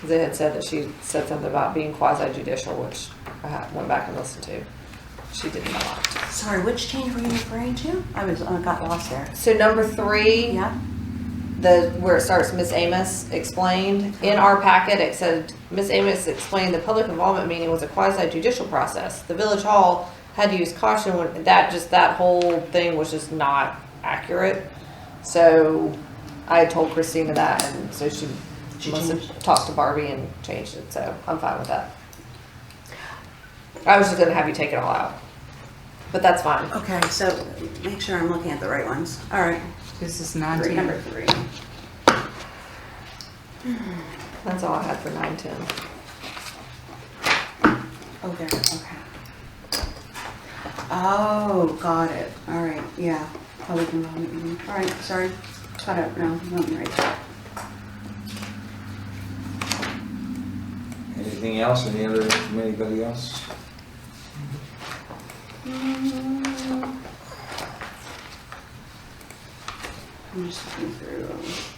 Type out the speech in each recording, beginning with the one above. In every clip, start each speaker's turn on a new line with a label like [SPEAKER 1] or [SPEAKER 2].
[SPEAKER 1] 'Cause They had said that she said something about being quasi judicial, which I ha- went back and listened to. She did not.
[SPEAKER 2] Sorry, which change were you referring to? I was, I got lost there.
[SPEAKER 1] So number three.
[SPEAKER 2] Yeah?
[SPEAKER 1] the where it starts miss amos explained in our packet it said miss amos explained the public involvement meeting was a quasi judicial process the village hall had to use caution when that just that whole thing was just not accurate so i told christina that and so she,
[SPEAKER 2] She
[SPEAKER 1] must
[SPEAKER 2] changed
[SPEAKER 1] have
[SPEAKER 2] it.
[SPEAKER 1] talked to barbie and changed it so i'm fine with that i was just going to have you take it all out but that's fine
[SPEAKER 2] Okay, so make sure I'm looking at the right ones. All right.
[SPEAKER 3] This is
[SPEAKER 2] Three,
[SPEAKER 3] nineteen.
[SPEAKER 2] number three.
[SPEAKER 1] that's all i had for 910
[SPEAKER 2] Oh, there, okay. Oh, got it. All right, yeah. Public involvement meeting. All right, sorry. Caught up now. No, I'm right.
[SPEAKER 4] Anything else, any other, from anybody else?
[SPEAKER 2] I'm just looking through.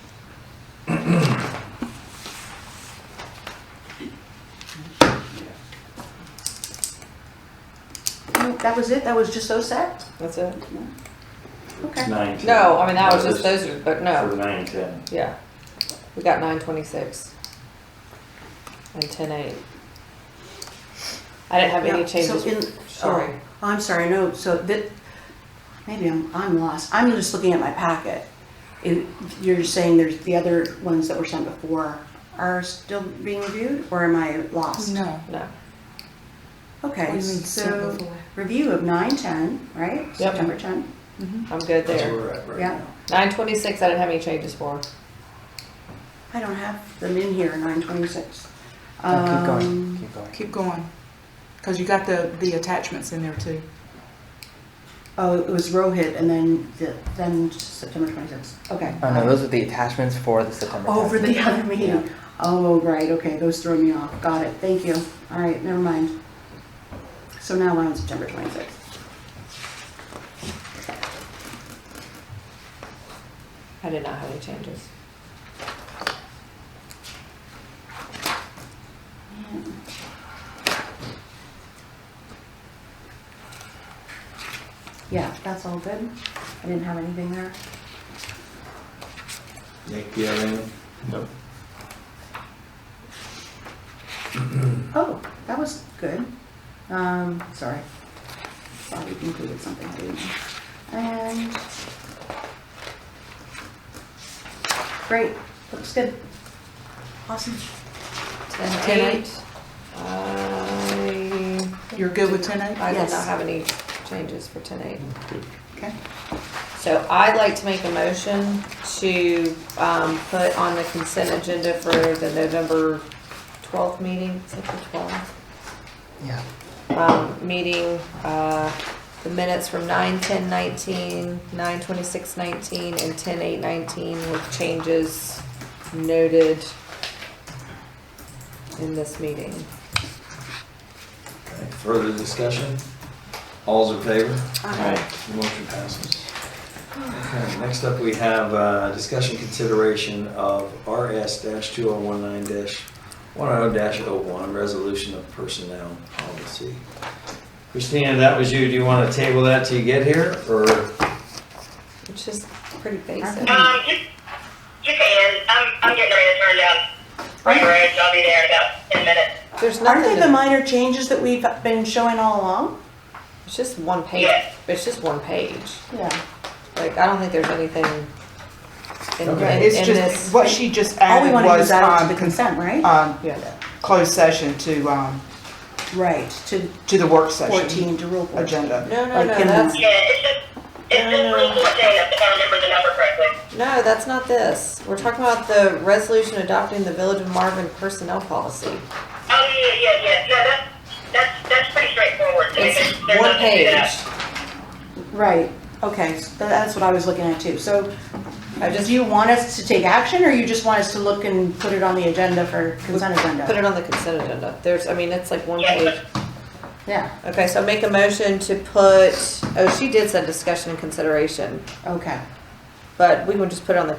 [SPEAKER 2] No, That was it? That was just so set?
[SPEAKER 1] that's it
[SPEAKER 2] Okay.
[SPEAKER 5] Nine. ten.
[SPEAKER 1] No, I mean, that was just,
[SPEAKER 5] this-
[SPEAKER 1] those are, but
[SPEAKER 5] For
[SPEAKER 1] no,
[SPEAKER 5] nine, ten.
[SPEAKER 1] yeah. We got nine twenty-six. And ten eight. I didn't have any
[SPEAKER 2] Yeah, So in,
[SPEAKER 1] changes. Sorry.
[SPEAKER 2] oh, I'm sorry, no, so that, maybe I'm, I'm lost. I'm just looking at my packet. It- You're saying there's, the other ones that were sent before are still being reviewed, or am I lost?
[SPEAKER 3] No.
[SPEAKER 1] No,
[SPEAKER 3] What do
[SPEAKER 2] Okay,
[SPEAKER 3] you mean
[SPEAKER 2] so
[SPEAKER 3] sent before?
[SPEAKER 2] review of nine, ten, right?
[SPEAKER 1] Yep.
[SPEAKER 2] September ten,
[SPEAKER 3] mm-hmm.
[SPEAKER 1] I'm good
[SPEAKER 4] That's where
[SPEAKER 1] there.
[SPEAKER 4] we're at right
[SPEAKER 2] yeah.
[SPEAKER 4] now.
[SPEAKER 1] Nine twenty-six, I didn't have any changes for.
[SPEAKER 2] I don't have them in here, nine twenty-six.
[SPEAKER 6] No, keep
[SPEAKER 2] Um,
[SPEAKER 6] going, keep going.
[SPEAKER 3] Keep going. Cause you got the, the attachments in there too.
[SPEAKER 2] Oh, it was Rohit and then, the- then September twenty-sixth, okay.
[SPEAKER 6] Oh no, those are the attachments for the September.
[SPEAKER 2] Oh, for
[SPEAKER 6] test.
[SPEAKER 2] the other
[SPEAKER 6] Yeah.
[SPEAKER 2] meeting. Oh, right, okay, those throw me off. Got it, thank you. All right, never mind. So now we're on September 26th.
[SPEAKER 1] I did not have any changes.
[SPEAKER 2] Yeah, that's all good. I didn't have anything there.
[SPEAKER 4] Nick, do you have any?
[SPEAKER 5] Nope.
[SPEAKER 2] Oh, that was good. Um, sorry. Thought we included something, I didn't. And... Great, looks good. Awesome.
[SPEAKER 1] Ten eight.
[SPEAKER 3] 10-8.
[SPEAKER 1] I,
[SPEAKER 3] You're good with ten eight?
[SPEAKER 1] I did not
[SPEAKER 2] Yes.
[SPEAKER 1] have any changes for ten eight.
[SPEAKER 2] Okay.
[SPEAKER 1] So I'd like to make a motion to, um, put on the consent agenda for the November twelfth meeting, is it the twelfth?
[SPEAKER 6] Yeah.
[SPEAKER 1] um, meeting, uh, the minutes from nine, ten, nineteen, nine, twenty-six, nineteen, and ten, eight, nineteen with changes noted in this meeting.
[SPEAKER 4] Okay, Further discussion? All's in favor?
[SPEAKER 5] Aye.
[SPEAKER 4] The motion passes. Okay, next up, we have uh, discussion consideration of RS-2019-10-01, resolution of personnel policy. Christina, that was you. Do you want to table that till you get here, or?
[SPEAKER 1] It's just pretty basic.
[SPEAKER 7] Um, you, you can. I'm, I'm getting ready to turn down Spring Ridge. I'll be there in about 10 minutes.
[SPEAKER 1] There's
[SPEAKER 2] Aren't they
[SPEAKER 1] nothing,
[SPEAKER 2] the
[SPEAKER 1] to-
[SPEAKER 2] minor changes that we've been showing all along?
[SPEAKER 1] it's just one page, it's just one page.
[SPEAKER 2] Yeah.
[SPEAKER 1] Like, I don't think there's anything in, in
[SPEAKER 4] Okay.
[SPEAKER 3] It's
[SPEAKER 1] in
[SPEAKER 3] just,
[SPEAKER 1] this.
[SPEAKER 3] what she just
[SPEAKER 2] All we
[SPEAKER 3] added
[SPEAKER 2] want to do
[SPEAKER 3] was,
[SPEAKER 2] is add it to
[SPEAKER 3] um,
[SPEAKER 2] the consent, right?
[SPEAKER 3] um,
[SPEAKER 1] Yeah.
[SPEAKER 3] closed session to, um,
[SPEAKER 2] Right, to
[SPEAKER 3] to the work session
[SPEAKER 2] 14, to rule 14.
[SPEAKER 3] agenda.
[SPEAKER 1] No, no,
[SPEAKER 2] Like,
[SPEAKER 1] no,
[SPEAKER 2] can-
[SPEAKER 1] that's,
[SPEAKER 7] Yeah, it's just, it's just
[SPEAKER 1] No, no.
[SPEAKER 7] legal data, if I remember the number correctly.
[SPEAKER 1] no, that's not this. We're talking about the resolution adopting the Village of Marvin personnel policy.
[SPEAKER 7] Oh, yeah, yeah, yeah. No, that's, that's, that's pretty straightforward. There's-
[SPEAKER 1] It's
[SPEAKER 7] there's
[SPEAKER 1] one
[SPEAKER 7] nothing to that.
[SPEAKER 1] page.
[SPEAKER 2] Right, okay, so tha- that's what I was looking at too. So uh,
[SPEAKER 1] I just
[SPEAKER 2] do you want us to take action or you just want us to look and put it on the agenda for consent
[SPEAKER 1] Put
[SPEAKER 2] agenda?
[SPEAKER 1] it on the consent agenda. There's, I mean, it's like one
[SPEAKER 7] Yeah.
[SPEAKER 1] page.
[SPEAKER 2] Yeah,
[SPEAKER 1] Okay, so make a motion to put, oh, she did send discussion and consideration,
[SPEAKER 2] okay.
[SPEAKER 1] but we can just put it on the